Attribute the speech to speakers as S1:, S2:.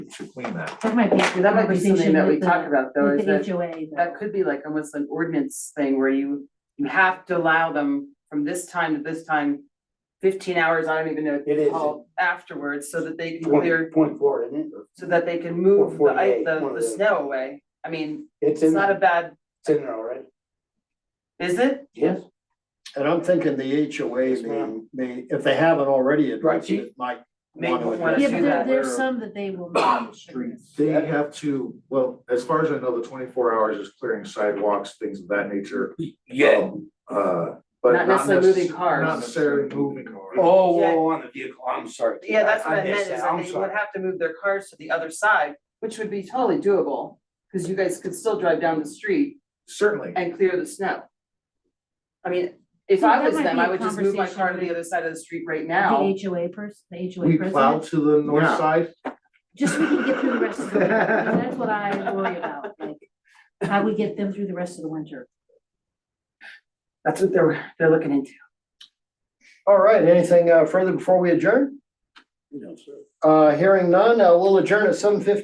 S1: should clean that.
S2: That might be.
S3: That might be something that we talked
S2: talked
S3: about though, is
S2: With
S3: that
S2: the HOA
S3: that
S2: though.
S3: could be like almost an ordinance thing where you, you have to allow them from this time to this time. Fifteen hours, I don't even know what
S4: It
S3: they
S4: is.
S3: call afterwards, so that they can clear,
S4: Point, point four, isn't it? Or-
S3: so that they can move the, ice-
S4: 48,
S3: the,
S4: one of
S3: the
S4: those.
S3: snow away. I mean,
S4: It's
S3: it's
S4: in,
S3: not a
S4: it's
S3: bad,
S4: in there already.
S3: is it?
S4: Yes.
S5: And I'm thinking the HOA
S4: Yes,
S5: may,
S4: ma'am.
S5: may, if they haven't already addressed
S4: Right.
S5: it, might.
S3: Maybe
S5: wanna
S3: we wanna
S5: address
S2: Yeah, but
S3: do
S5: it.
S2: there,
S3: that.
S2: there's some that they will not.
S1: Streets. They have to, well, as far as I know, the twenty-four hours is clearing sidewalks, things of that nature.
S4: Yeah.
S1: Um, Uh, but
S3: Not
S1: not
S3: necessarily
S1: necess-
S3: moving cars.
S1: Not necessarily moving cars.
S4: Oh,
S3: Yeah.
S4: oh, on the vehicle, I'm sorry.
S3: Yeah, that's what I meant,
S4: missed
S3: is
S4: that.
S3: that
S4: I'm
S3: they would
S4: sorry.
S3: have to move their cars to the other side, which would be totally doable. Cause you guys could still drive down the street
S1: Certainly,
S3: and clear the snow. I mean, if
S2: So
S3: I
S2: that
S3: was
S2: might
S3: them,
S2: be
S3: I
S2: a
S3: would just move my car to
S2: conversation
S3: the other side of the street right
S2: The
S3: now.
S2: HOA person, the HOA
S1: we plow
S2: president,
S1: to the north
S5: Yeah.
S1: side,
S2: just so we can get through the rest of the winter. And That's what I worry about, like, how we get them through the rest of the winter.
S3: That's what they're, they're looking into.
S5: All right, anything uh, further before we adjourn?
S4: No, sir.
S5: Uh, hearing none, uh, we'll adjourn at seven fifty.